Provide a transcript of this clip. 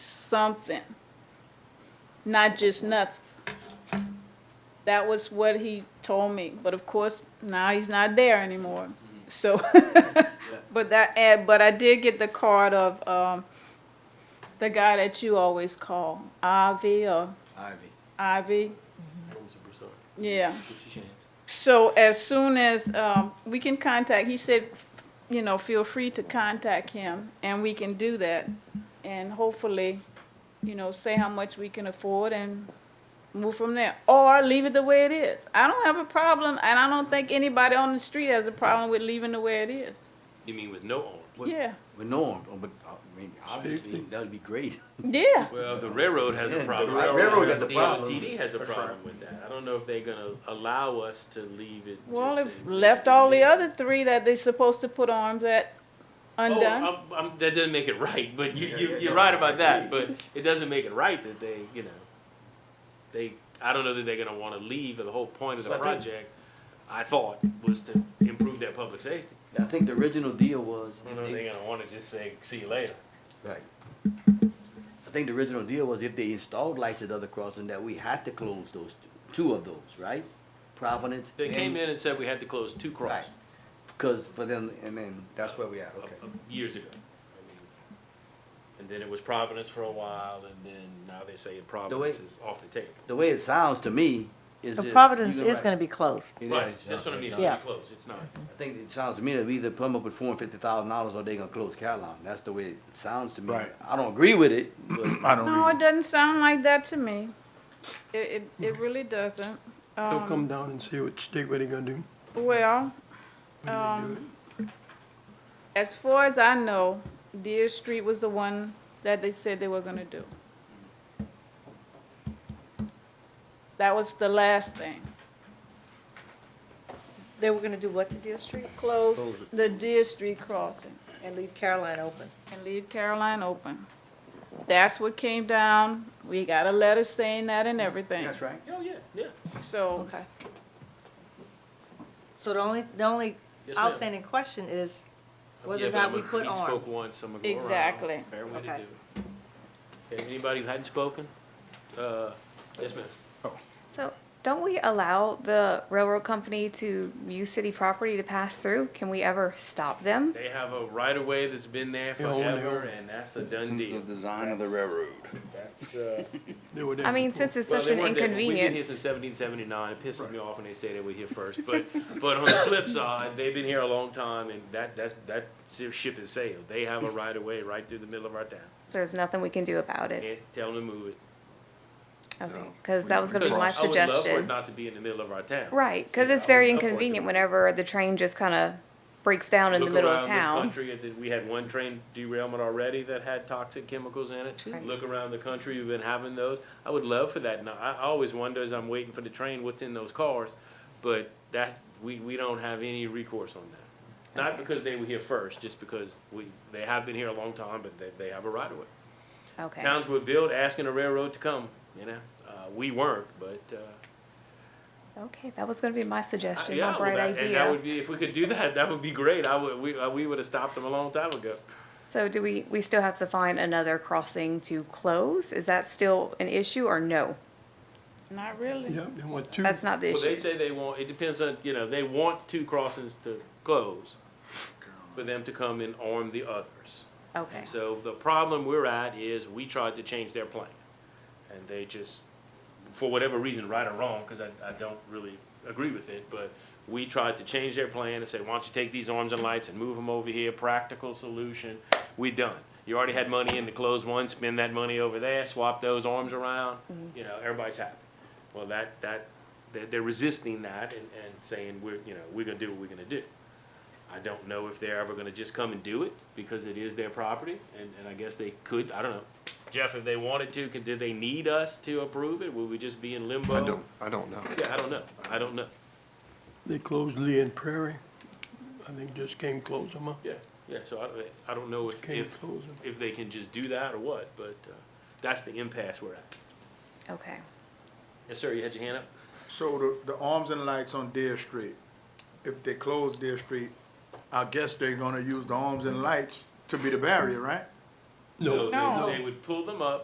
something, not just nothing. That was what he told me, but of course, now he's not there anymore, so. But that, and, but I did get the card of, um, the guy that you always call, Avi or Ivy. Ivy, yeah. What's your chance? So as soon as, um, we can contact, he said, you know, feel free to contact him, and we can do that. And hopefully, you know, say how much we can afford and move from there, or leave it the way it is. I don't have a problem, and I don't think anybody on the street has a problem with leaving the way it is. You mean with no arms? What- Yeah, With Norm, oh, but, uh, I mean, obviously, that would be great. yeah, Well, the railroad has Yeah, a the problem. railroad with got that. the problem. DOTD has a problem with that. I don't know if they're gonna allow us to leave it. well, just if in- left all the other three that they're supposed to put arms at Oh, undone. I'm- I'm- That doesn't make it right, but you, Yeah, you, yeah, you're yeah. right about that, but it doesn't make it right that they, you know, they, I don't know that they're gonna wanna leave, the whole point of the But they- project, I thought, was to improve their public safety. I think the original deal was, I don't know if they're gonna wanna just say, see you later. right. I think the original deal was if they installed lights at other crossing, that we had to close those, two- two of those, right? Providence. They came and- in and said we had to close two Right, crosses because for them, and then, that's where we at, uh, okay. uh, years ago. I mean, And then it was Providence for a while, and then now they say Providence is off the table. The way it sounds to me is So that. Providence you're is right. gonna be closed. It Right, is, Mm-hmm. that's uh, what I mean, it's Yeah. gonna be closed, it's not. I think it sounds to me that we either come up with four hundred fifty thousand dollars or they gonna close Caroline. That's the way it sounds to me. Right. I don't agree with it, but I don't No, either. it doesn't sound like that to me. It, it, it really doesn't. They'll Um, come down and see what, state what they gonna do Well, when they um, do it. as far as I know, Deer Street was the one that they said they were gonna do. That was the last thing. They were gonna do what to Deal Street Close the Deer Street crossing and leave Caroline open? and leave Caroline open. That's what came down. We got a letter saying that and everything. that's right. Oh, yeah, yeah. So, Okay. So the only, the only Yes, ma'am. outstanding question is whether Yeah, or but not I'm we a- put Pete spoke arms. once, I'm gonna go around. Exactly. Fair way to Okay. do it. Okay, anybody who hadn't spoken? Uh, yes, ma'am. So don't we allow the railroad company to use city property to pass through? Can we ever stop them? They have a right of way that's been there They own- they forever, own. and that's a done deal. design of the railroad. That's, uh. They were there I mean, before. since it's Well, such they an weren't there. We've been here since inconvenience. seventeen seventy-nine, it pisses me off when they say that we're here first, but, but on the flip side, they've been here a long time, and that, that's, that ship has sailed. They have a right of way right through the middle of our town, There's nothing we can do about it. can't tell them to move it. Okay, because that was gonna be my Because I would love for it suggestion. not to be in the middle of our town. Right, because Yeah, I it's would very love for it to inconvenient be. whenever the train just kind of breaks down in the Look middle of around town. country, it- we had one train derailment already that had toxic chemicals in it. Right. Look around the country, we've been having those. I would love for that. Now, I I always wonder as I'm waiting for the train, what's in those cars? But that, we, we don't have any recourse on that. Not because they were here first, just because we, they have been here a long time, but they, they have a right of way. Okay. Towns were built asking the railroad to come, you know? Uh, we weren't, but, uh, Okay, that was gonna be my suggestion, yeah, my well, bright that- And that idea. would be, if we could do that, that would be great. I would, we, uh, we would have stopped them a long time ago. So do we, we still have to find another crossing to close? Is that still an issue or no? not really. Yep, they want two. That's not the Well, they issue. say they want, it depends on, you know, they want two crossings to close for them to come and arm the others. Okay. So the problem we're at is we tried to change their plan. And they just, for whatever reason, right or wrong, because I, I don't really agree with it, but we tried to change their plan and say, why don't you take these arms and lights and move them over here, practical solution, we done. You already had money in to close one, spend that money over there, swap those arms around, you know, everybody's happy. Well, that, that, they're, they're resisting that and, and saying, we're, you know, we're gonna do what we're gonna do. I don't know if they're ever gonna just come and do it, because it is their property, and, and I guess they could, I don't know. Jeff, if they wanted to, could, did they need us to approve it? Would we just be in limbo? I don't, I don't know. Yeah, I don't know, I don't know, They closed Lee and Prairie. I think just came close them up, yeah, yeah, so I, don't- I don't know if, came if, close them. if they can just do that or what, but, uh, that's the impasse we're at. Okay. Yes, sir, you had your hand up? So the, the arms and lights on Deer Street, if they close Deer Street, I guess they're gonna use the arms and lights to be the barrier, right? No. they- No. They would pull them up,